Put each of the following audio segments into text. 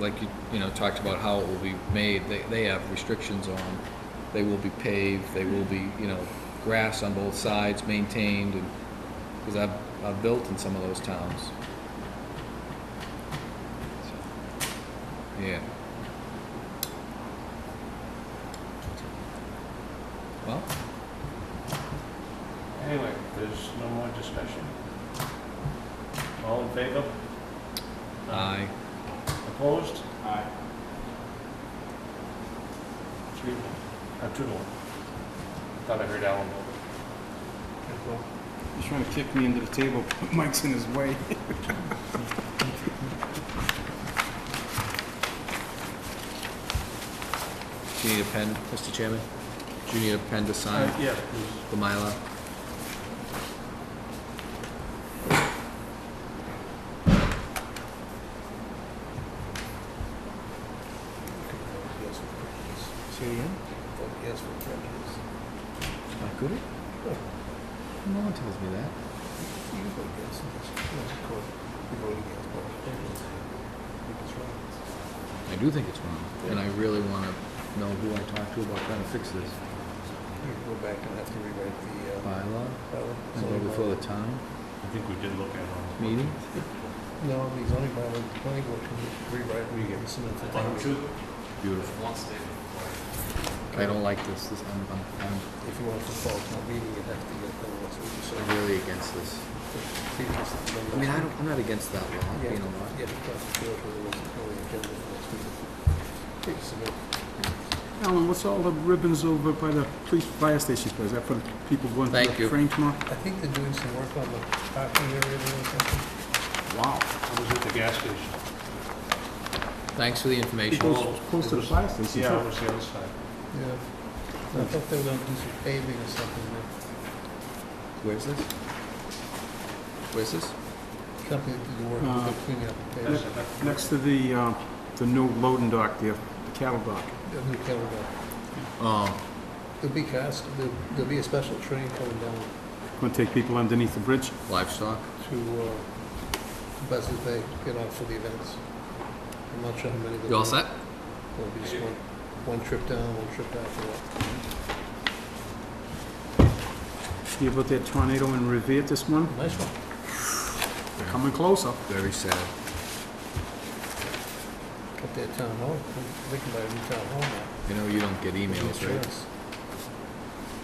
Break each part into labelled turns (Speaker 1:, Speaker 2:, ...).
Speaker 1: like you, you know, talked about how it will be made, they, they have restrictions on, they will be paved, they will be, you know, grass on both sides maintained, and, because I've, I've built in some of those towns. So, Yeah. Well,
Speaker 2: Anyway, there's no more discussion. All in favor?
Speaker 1: I,
Speaker 2: Opposed?
Speaker 3: Aye.
Speaker 2: Three, uh, two to one. Thought I heard Alan.
Speaker 3: He's trying to kick me into the table, but Mike's in his way.
Speaker 1: do you need a pen, Mr. Chairman? Do you need a pen to sign
Speaker 2: Uh, Yeah.
Speaker 1: the Mylar?
Speaker 3: Say it again?
Speaker 1: I could it? No one tells me that. I do think it's wrong, and I really want to know who I talk to about trying to fix this.
Speaker 4: Go back and have to rewrite the, uh,
Speaker 1: Bylaw,
Speaker 4: bylaw.
Speaker 1: and go before the time,
Speaker 2: I think we did look at it.
Speaker 1: meeting?
Speaker 4: uh, No, the zoning bylaw, the planning board can rewrite, we get some of the language.
Speaker 1: Beautiful. I don't like this, this, I'm, I'm,
Speaker 4: If you want to fall to a meeting, you'd have to get the ones we just.
Speaker 1: I'm really against this. I mean, I don't, I'm not against that law, you know what?
Speaker 4: Yeah, because the field really wasn't really agenda for next week. Please submit.
Speaker 3: Alan, what's all the ribbons over by the police fire station, is that for the people going to
Speaker 1: Thank
Speaker 3: the
Speaker 1: you.
Speaker 3: frame tomorrow?
Speaker 4: I think they're doing some work on the parking area or something.
Speaker 3: Wow.
Speaker 2: I was at the gas station.
Speaker 1: Thanks for the
Speaker 3: It
Speaker 1: information.
Speaker 3: goes close to the fire station,
Speaker 2: Yeah, it
Speaker 3: too.
Speaker 2: was the other side.
Speaker 4: Yeah. I thought they were gonna do some paving or something, the
Speaker 1: Where's this? Where's this?
Speaker 4: company that did the work,
Speaker 3: Uh,
Speaker 4: was cleaning up the
Speaker 2: That's
Speaker 4: paving,
Speaker 2: it.
Speaker 3: Next to the, uh, the new loading dock there, the cattle dock.
Speaker 4: the new cattle dock.
Speaker 1: Oh,
Speaker 4: There'll be cars, there'll, there'll be a special train coming down
Speaker 3: Going to take people underneath the bridge.
Speaker 1: livestock,
Speaker 4: to, uh, Buzzards Bay, get on for the events. I'm not sure how many. there'll
Speaker 1: you all
Speaker 4: be.
Speaker 1: set?
Speaker 4: It'll be just one, one trip down, one trip down for that.
Speaker 3: You about that tornado in Revere this morning?
Speaker 4: Nice one.
Speaker 3: Coming closer.
Speaker 1: Very sad.
Speaker 4: Up there at town hall, I'm thinking about a new town hall now.
Speaker 1: You know, you don't get emails, right?
Speaker 4: Insurance.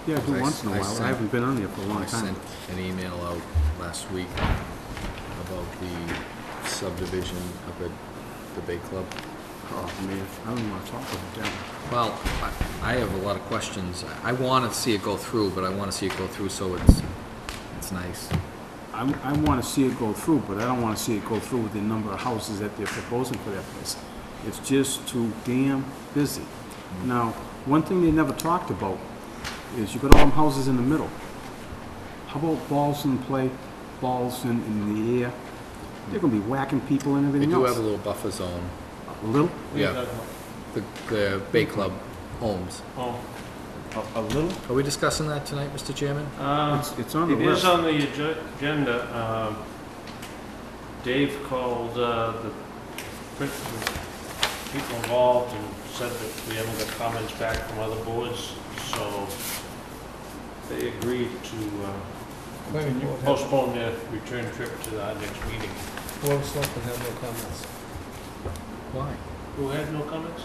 Speaker 3: Yeah, every
Speaker 1: I
Speaker 3: once in a
Speaker 1: s- I
Speaker 3: while, I
Speaker 1: sent-
Speaker 3: haven't been on there for a long
Speaker 1: I
Speaker 3: time.
Speaker 1: sent an email out last week about the subdivision up at the Bay Club.
Speaker 3: Oh, man, I don't want to talk about that.
Speaker 1: Well, I- I have a lot of questions. I- I want to see it go through, but I want to see it go through so it's, it's nice.
Speaker 3: I, I want to see it go through, but I don't want to see it go through with the number of houses that they're proposing for that place. It's just too damn busy. Now, one thing they never talked about is you got all them houses in the middle. How about balls in play, balls in, in the air? They're gonna be whacking people and
Speaker 1: They
Speaker 3: everything
Speaker 1: do have
Speaker 3: else.
Speaker 1: a little buffer zone,
Speaker 3: A little?
Speaker 1: yeah, the, the Bay Club homes.
Speaker 2: Oh,
Speaker 3: A, a little?
Speaker 1: Are we discussing that tonight, Mr. Chairman?
Speaker 2: uh,
Speaker 3: It's, it's on the
Speaker 2: It is
Speaker 3: list.
Speaker 2: on the ag- agenda. Um, Dave called uh, the print- the people involved and said that we haven't got comments back from other boards, so they agreed to
Speaker 4: Planning
Speaker 2: uh,
Speaker 4: board had-
Speaker 2: postpone their return trip to our next meeting.
Speaker 4: Board of Selectmen had no comments.
Speaker 1: Why?
Speaker 2: Who had no comments?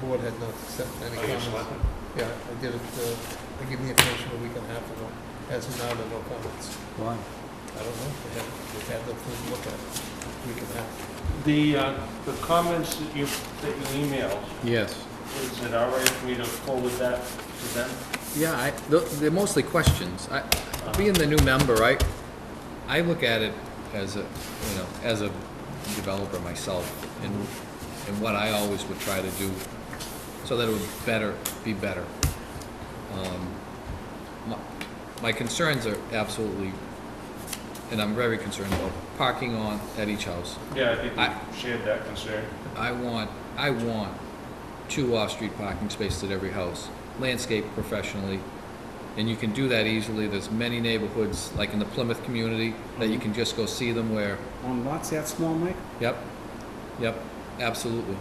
Speaker 4: The board had not accepted any
Speaker 2: Oh, yes,
Speaker 4: comments.
Speaker 2: Selectmen.
Speaker 4: Yeah, I did it, uh, I gave the information a week and a half ago. As of now, there are no comments.
Speaker 1: Why?
Speaker 4: I don't know, they haven't, they've had nothing to look at, week and a half.
Speaker 2: The, uh, the comments that you, that you emailed,
Speaker 1: Yes.
Speaker 2: is it all right for me to forward that to them?
Speaker 1: Yeah, I, th- they're mostly questions. I, being the new member, I, I look at it as a, you know, as a developer myself, and, and what I always would try to do, so that it would better, be better. Um, my- My concerns are absolutely, and I'm very concerned about parking on, at each house.
Speaker 2: Um, Yeah, I think
Speaker 1: I-
Speaker 2: we shared that concern.
Speaker 1: I want, I want two off-street parking spaces at every house, landscaped professionally. And you can do that easily. There's many neighborhoods, like in the Plymouth community, that you can just go see them where,
Speaker 3: On lots that small, Mike?
Speaker 1: yep, yep. absolutely.